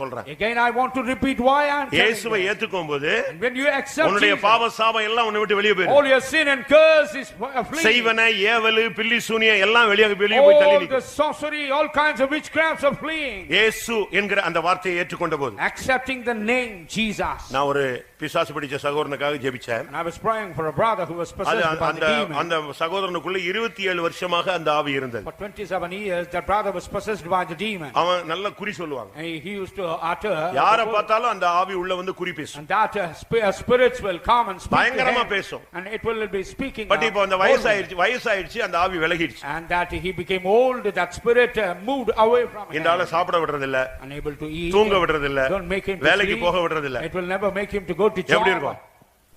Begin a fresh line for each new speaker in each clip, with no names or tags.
சொல்றேன்
Again, I want to repeat why I am telling
இயேசுவை
you.
ஏத்துக்கும் போது
And When you accept
உன்னுடைய
Jesus,
பாவ சாபம் எல்லாம் உன்னை விட்டு வெளியே போயிடும்
all your sin and curse is fleeing.
செய்வன ஏவலு பில்லி சூனிய எல்லாம் வெளியே வெளியே போய் தள்ளி
All
நிற்கும்
the sorcery, all kinds of witchcrafts are fleeing.
இயேசு என்கிற அந்த வார்த்தையை ஏற்றுக்கொண்ட போது
Accepting the name Jesus.
நான் ஒரு பிசாசு பிடிச்ச சகோதரனுக்காக ஜெபிச்சேன்
And I was praying for a brother who was
அது அந்த-
possessed by
அந்த
the demon.
அந்த சகோதரனுக்குள்ள இருபத்தி ஏழு வருஷமாக அந்த ஆவி இருந்தது
For twenty-seven years, that brother was possessed by the demon.
அவன் நல்ல குறி சொல்லுவாங்க
And he used to utter.
யாரை பார்த்தாலும் அந்த ஆவி உள்ள வந்து குறி பேசும்
And that uh, sp- uh, spirits will come and speak to
பயங்கரமா
him.
பேசும்.
And it will be speaking.
But
uh,
இப்போ அந்த
boldly.
வயசாயிருச்சு வயசாயிருச்சு அந்த ஆவி விலகிடுச்சு
And that he became old, that spirit uh, moved away from
இந்த
him.
ஆளை சாப்பிட விடுறதில்ல
Unable to eat.
தூங்க விடுறதில்ல
Don't make him to
வேலைக்கு
sleep.
போக விடுறதில்ல
It will never make him to go to job.
எப்படி இருக்கும்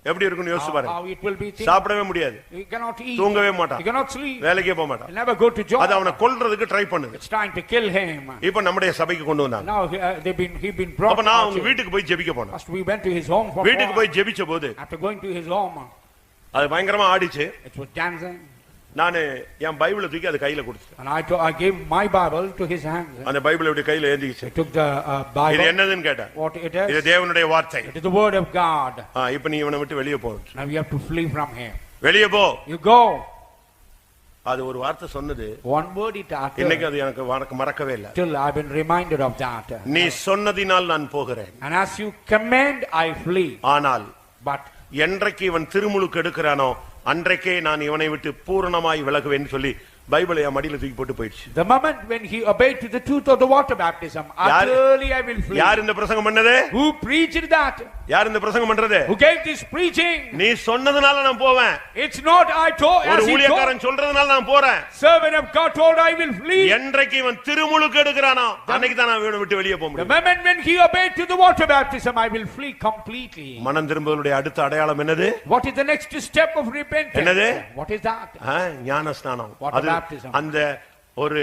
எப்படி இருக்கும்னு யோசிச்சு
How
பாருங்க
how it will be. thing.
சாப்பிடவே முடியாது
He cannot eat.
தூங்கவே மாட்டான்.
He cannot sleep.
வேலைக்கே போக மாட்டான்
He'll never go to job.
அது அவனை கொல்றதுக்கு ட்ரை பண்ணுது
It's trying to kill him.
இப்ப நம்முடைய சபைக்கு கொண்டு வந்தாங்க
Now he- uh, they've been, he been brought.
அப்ப நான்
out
அவங்க
here.
வீட்டுக்கு போய் ஜெபிக்க போனேன்
First we went to his home for.
வீட்டுக்கு
prayer.
போய் ஜெபிச்ச போது
After going to his home,
அது பயங்கரமா ஆடிச்சு
it was dancing.
நான் என் பைபிளை தூக்கி அது கையில கொடுத்துட்டேன்
And I, to- I gave my Bible to his hands.
அந்த பைபிளை இப்படி கையில ஏந்திக்கிச்சு
He took the uh,
இது
Bible,
என்னதுன்னு கேட்டேன்
what it
இது
is.
தேவனுடைய வார்த்தை
It is the word of God.
ஆ, இப்ப நீ இவனை விட்டு வெளியே போகணும்
Now you have to flee from him.
வெளியே போ
You go.
அது ஒரு வார்த்தை சொன்னது
One word it
இன்னைக்கு
uttered.
அது எனக்கு மறக்க- மறக்கவே இல்லை
Till I've been reminded of that.
நீ சொன்னதினால் நான் போகிறேன்
And as you command, I flee.
ஆனால்
But
என்றைக்கு இவன் திருமுழுக்கு எடுக்கிறானோ அன்றைக்கே நான் இவனை விட்டு பூரணமாய் விலகுவேன்னு சொல்லி பைபிளை என் மடியில தூக்கி போட்டு போயிடுச்சு
the moment when he obeyed to the truth of the water baptism, utterly I will flee.
யார் இந்த பிரசங்கம் பண்ணது
Who preached that?
யார் இந்த பிரசங்கம் பண்றது
Who gave this preaching?
நீ சொன்னதுனால நான் போவேன்
It's not I told,
ஒரு
as he told,
ஊழியக்காரன் சொல்றதுனால நான் போறேன்
servant of God told, I will flee.
என்றைக்கு இவன் திருமுழுக்கு எடுக்கிறானோ அன்னைக்கு தான் நான் இவனை விட்டு வெளியே போக
The
முடியும்
moment when he obeyed to the water baptism, I will flee completely.
மனம் திரும்புவதனுடைய அடுத்த அடையாளம் என்னது
What is the next step of repentance?
என்னது?
What is that?
ஆ, ஞான ஸ்நானம்
Water
அது
baptism.
அந்த ஒரு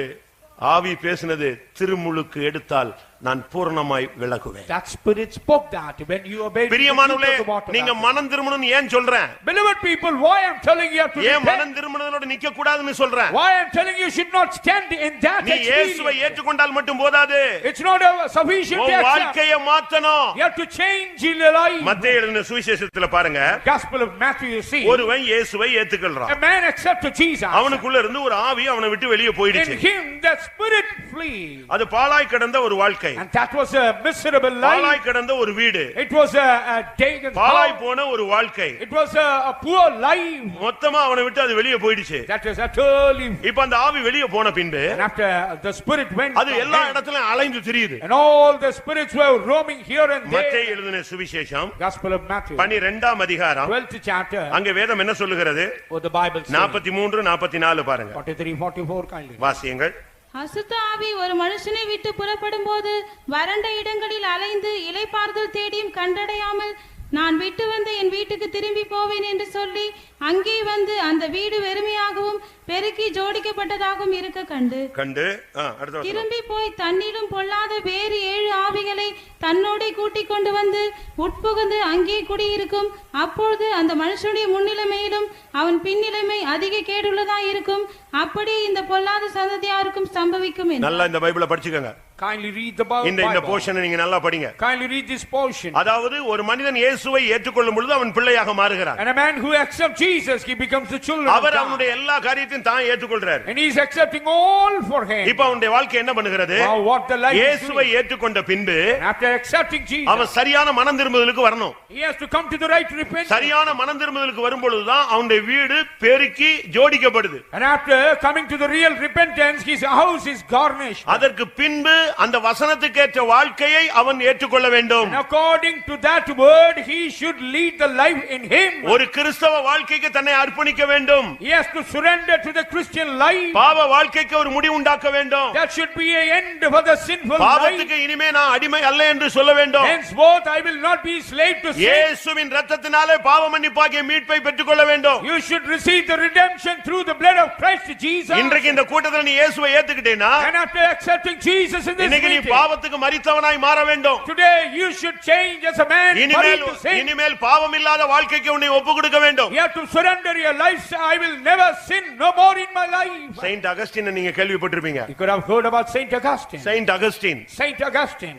ஆவி பேசினது திருமுழுக்கு எடுத்தால் நான் பூரணமாய் விளக்குவேன்
That spirit spoke that when you obeyed. to the truth of
பிரியமானவர்களே
the water
நீங்க
baptism.
மனம் திரும்பணும்னு ஏன் சொல்றேன்
Beloved people, why I'm telling you have to
ஏன்
repent?
மனம் திரும்பினதோட நிக்க கூடாதுன்னு சொல்றேன்
Why I'm telling you should not stand in that
நீ இயேசுவை
experience.
ஏற்றுக்கொண்டால் மட்டும் போதாது
It's not a sufficient
உன்
to accept.
வாழ்க்கைய மாத்தணும்
You have to change in your life.
மத்திய எழுதின சுவிசேஷத்துல பாருங்க
Gospel of Matthew, you see,
ஒருவன் இயேசுவை ஏத்துக்கொள்றான்
a man accepted Jesus.
அவனுக்குள்ள இருந்து ஒரு ஆவி அவனை விட்டு வெளியே
In
போயிடுச்சு
him, the spirit flee.
அது பாலாய் கிடந்த ஒரு வாழ்க்கை
And that was a miserable life.
பாலாய் கிடந்த ஒரு வீடு
It was a, a taken
பாலாய்
house.
போன ஒரு வாழ்க்கை
It was a, a poor life
மொத்தமா அவனை விட்டு அது வெளியே போயிடுச்சு
that was utterly.
இப்ப அந்த ஆவி வெளியே போன பின்பு
And after uh, the spirit went,
அது
from
எல்லா
him,
இடத்துலயும் அலைந்து திரியுது
and all the spirits were roaming here and
மத்திய
there.
எழுதின சுவிசேஷம்
Gospel of Matthew,
பனிரெண்டாம் அதிகாரம்
12th chapter.
அங்க வேதம் என்ன சொல்லுகிறது
What the Bible says.
நாற்பத்தி மூன்று நாற்பத்தி நாலு பாருங்க
43, 44 kindly.
வாசியங்கள்
அசுத்த ஆவி ஒரு மனுஷனை விட்டு புறப்படும் போது வறண்ட இடங்களில் அலைந்து இலைப்பார்தல் தேடியும் கண்டடையாமல் நான் விட்டு வந்த என் வீட்டுக்கு திரும்பி போவேன் என்று சொல்லி அங்கே வந்து அந்த வீடு வெறுமையாகவும் பெருக்கி ஜோடிக்கப்பட்டதாகவும் இருக்க கண்டு
கண்டு ஆ, அடுத்த வசனம்.
திரும்பி போய் தண்ணீரும் பொல்லாத வேறு ஏழு ஆவிகளை தன்னோடே கூட்டிக் கொண்டு வந்து உட்புகுந்து அங்கே குடியிருக்கும் அப்பொழுது அந்த மனுஷனுடைய முன்னிலைமையிலும் அவன் பின்னிலைமை அதிக கேடுள்ளதா இருக்கும் அப்படியே இந்த பொல்லாத சந்ததியாருக்கும் சம்பவிக்கும் என்றார்.
நல்லா இந்த பைபிளை படிச்சுக்கோங்க
Kindly read the Bi-
இந்த இந்த
Bible.
போர்ஷனை நீங்க நல்லா படிங்க
Kindly read this portion.
அதாவது ஒரு மனிதன் இயேசுவை ஏற்றுக்கொள்ளும் பொழுது அவன் பிள்ளையாக மாறுகிறான்
And a man who accepts Jesus, he becomes the children of
our
God.
அவனுடைய எல்லா காரியத்தையும் தான் ஏற்றுக்கொள்றாரு
And he's accepting all for him.
இப்ப அவனுடைய வாழ்க்கை என்ன பண்ணுகிறது
Now what the life is
இயேசுவை
doing.
ஏற்றுக்கொண்ட பின்பு
And After accepting Jesus,
அவன் சரியான மனம் திரும்புதலுக்கு வரணும்
he has to come to the right repentance.
சரியான மனம் திரும்புதலுக்கு வரும்பொழுதுதான் அவனுடைய வீடு பெருக்கி ஜோடிக்கப்படுது
And after coming to the real repentance, his house is garnished.
அதற்கு பின்பு அந்த வசனத்துக்கேற்ற வாழ்க்கையை அவன் ஏற்றுக்கொள்ள வேண்டும்
And according to that word, he should lead the life in him.
ஒரு கிறிஸ்தவ வாழ்க்கைக்கு தன்னை அர்ப்பணிக்க வேண்டும்
He has to surrender to the Christian life.
பாவ வாழ்க்கைக்கு ஒரு முடிவு உண்டாக்க வேண்டும்
That should be an end for the sinful life.
பாவத்துக்கு இனிமே நான் அடிமை அல்ல என்று சொல்ல வேண்டும்
Henceforth, I will not be slave to sin.
இயேசுவின் ரத்தத்தினாலே பாவ மன்னிப்பாகிய மீட்பை பெற்றுக்கொள்ள வேண்டும்
You should receive the redemption through the blood of Christ Jesus.
இன்றைக்கு இந்த கூட்டத்தில் நீ இயேசுவை ஏத்துக்கிட்டேனா
And after accepting Jesus in this
இன்னைக்கு நீ
meeting,
பாவத்துக்கு மறித்தவனாய் மாற வேண்டும்
today you should change as a man married
இனிமேல்
to sin.
இனிமேல் பாவம் இல்லாத வாழ்க்கைக்கு உன்னை ஒப்பு கொடுக்க வேண்டும்
You have to surrender your life. I will never sin no more in my life.
Saint Augustine நீங்க கேள்விப்பட்டிருப்பீங்க
You could have heard about Saint Augustine.
Saint Augustine
Saint Augustine.